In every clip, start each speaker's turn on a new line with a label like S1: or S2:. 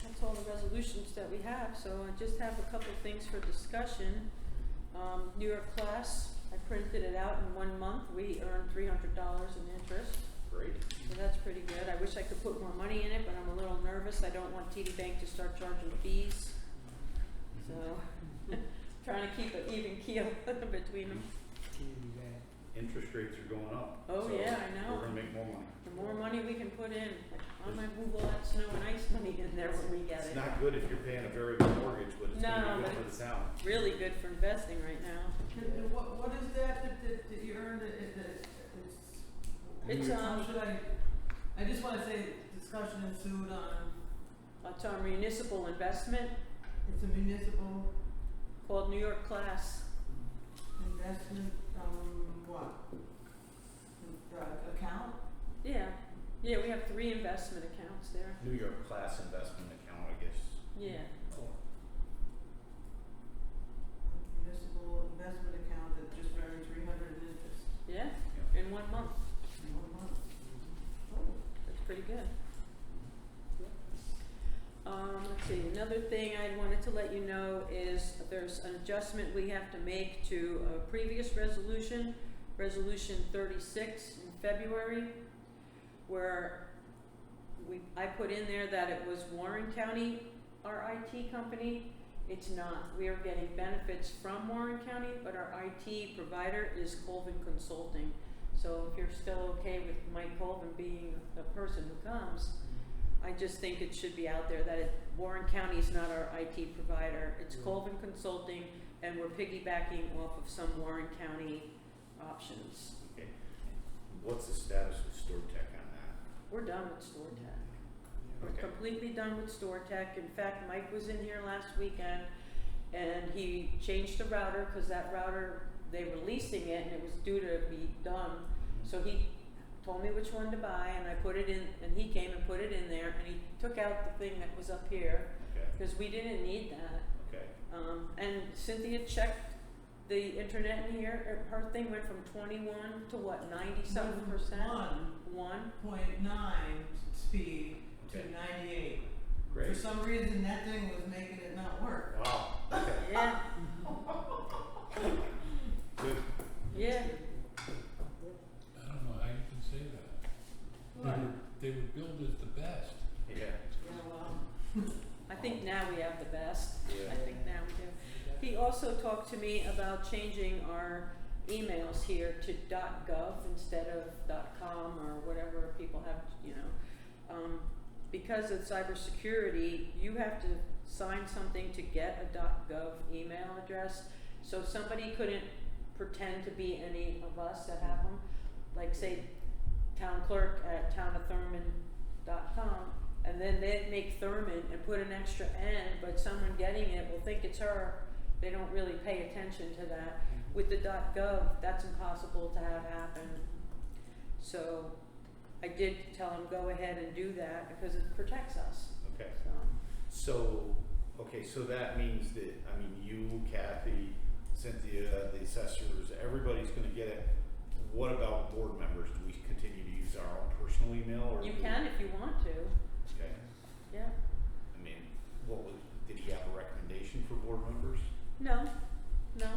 S1: additional resolutions that we have, so I just have a couple things for discussion. Um, New York class, I printed it out in one month, we earned three hundred dollars in interest,
S2: Great.
S1: so that's pretty good. I wish I could put more money in it, but I'm a little nervous, I don't want TD Bank to start charging fees. So, trying to keep an even keel between them.
S2: Interest rates are going up.
S1: Oh,
S2: so
S1: yeah, I know.
S2: We're gonna make more money.
S1: The more money we can put in, I might move all that snow and ice money in there when we get
S2: It's
S1: it.
S2: not good if you're paying a variable mortgage, but it's
S1: No,
S2: gonna be
S1: but
S2: good for the town.
S1: Really good for investing right now.
S3: And and what, what is that that, that, that you earned, that, that, that- it's.
S1: It's, um,
S3: How should I, I just wanna say discussion ensued on,
S1: It's our municipal investment
S3: it's a municipal
S1: called New York Class.
S3: investment, um, what? Uh, account?
S1: Yeah, yeah, we have three investment accounts there.
S2: New York class investment account, I guess.
S1: Yeah,
S3: Municipal investment account that just earned three hundred in interest
S1: yeah, in one month.
S3: in one month. Oh,
S1: That's pretty good. Um, let's see, another thing I wanted to let you know is there's an adjustment we have to make to a previous resolution, Resolution thirty-six in February, where we, I put in there that it was Warren County, our IT company. It's not. We are getting benefits from Warren County, but our IT provider is Colvin Consulting. So if you're still okay with Mike Colvin being the person who comes, I just think it should be out there that it, Warren County is not our IT provider. It's
S4: Yeah.
S1: Colvin Consulting, and we're piggybacking off of some Warren County options.
S2: Okay. What's the status with Stewart Tech on that?
S1: We're done with StoreTech. We're
S2: Okay.
S1: completely done with StoreTech. In fact, Mike was in here last weekend, and he changed the router, because that router, they were leasing it, and it was due to be done
S2: Mm-hmm.
S1: So he told me which one to buy and I put it in, and he came and put it in there and he took out the thing that was up here
S2: Okay,
S1: because we didn't need that.
S2: okay.
S1: Um, and Cynthia checked the internet in here, er, her her thing went from twenty-one to what, ninety-seven percent?
S3: One
S1: One,
S3: point nine speed to
S2: Okay.
S3: ninety-eight. For
S2: Great.
S3: some reason, that thing was making it not work.
S2: Wow. Okay.
S1: yeah,
S2: Good.
S1: yeah.
S5: I don't know how you can say that. They were, they were billed as the best.
S2: Yeah.
S3: Yeah, well,
S1: I think now we have the best. I
S2: Yeah.
S1: think now we do. He also talked to me about changing our emails here to .gov instead of .com or whatever people have, you know. Um, because of cybersecurity, you have to sign something to get a .gov email address. So somebody couldn't pretend to be any of us that have them. Like say town clerk at townofthurman.com and then they make Thurman and put an extra N, but someone getting it will think it's her. They don't really pay attention to that. With the .gov, that's impossible to have happen. So I did tell him, go ahead and do that because it protects us,
S2: Okay.
S1: so.
S2: So, okay, so that means that, I mean, you, Kathy, Cynthia, the assessors, everybody's gonna get it. What about board members? Do we continue to use our own personal email or?
S1: You
S2: do we-
S1: can if you want to,
S2: Okay,
S1: yeah.
S2: I mean, what was, did he have a recommendation for board members?
S1: No, no.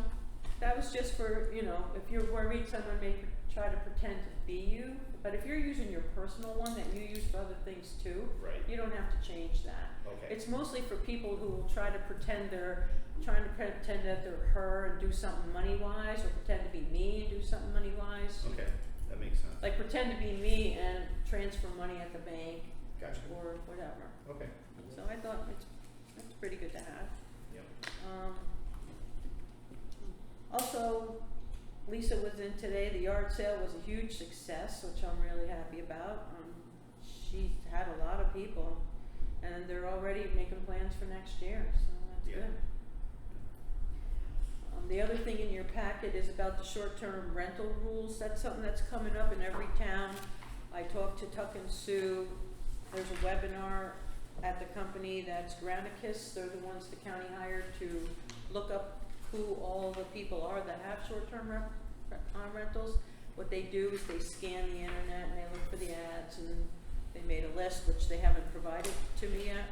S1: That was just for, you know, if you're worried someone may try to pretend to be you. But if you're using your personal one that you use for other things too,
S2: Right,
S1: you don't have to change that.
S2: okay,
S1: It's mostly for people who will try to pretend they're, trying to pretend that they're her and do something money wise, or pretend to be me and do something money wise.
S2: okay, that makes sense.
S1: Like pretend to be me and transfer money at the bank
S2: Gotcha,
S1: or whatever.
S2: okay,
S1: So I thought it's, that's pretty good to have.
S2: yep.
S1: Um, also, Lisa was in today, the yard sale was a huge success, which I'm really happy about. Um, she had a lot of people, and they're already making plans for next year, so that's
S2: Yeah.
S1: good. Um, the other thing in your packet is about the short-term rental rules, that's something that's coming up in every town. I talked to Tuck and Sue, there's a webinar at the company that's Granicus, they're the ones the county hired to look up who all the people are that have short-term rep- re- uh, rentals. What they do is they scan the internet and they look for the ads and they made a list, which they haven't provided to me yet.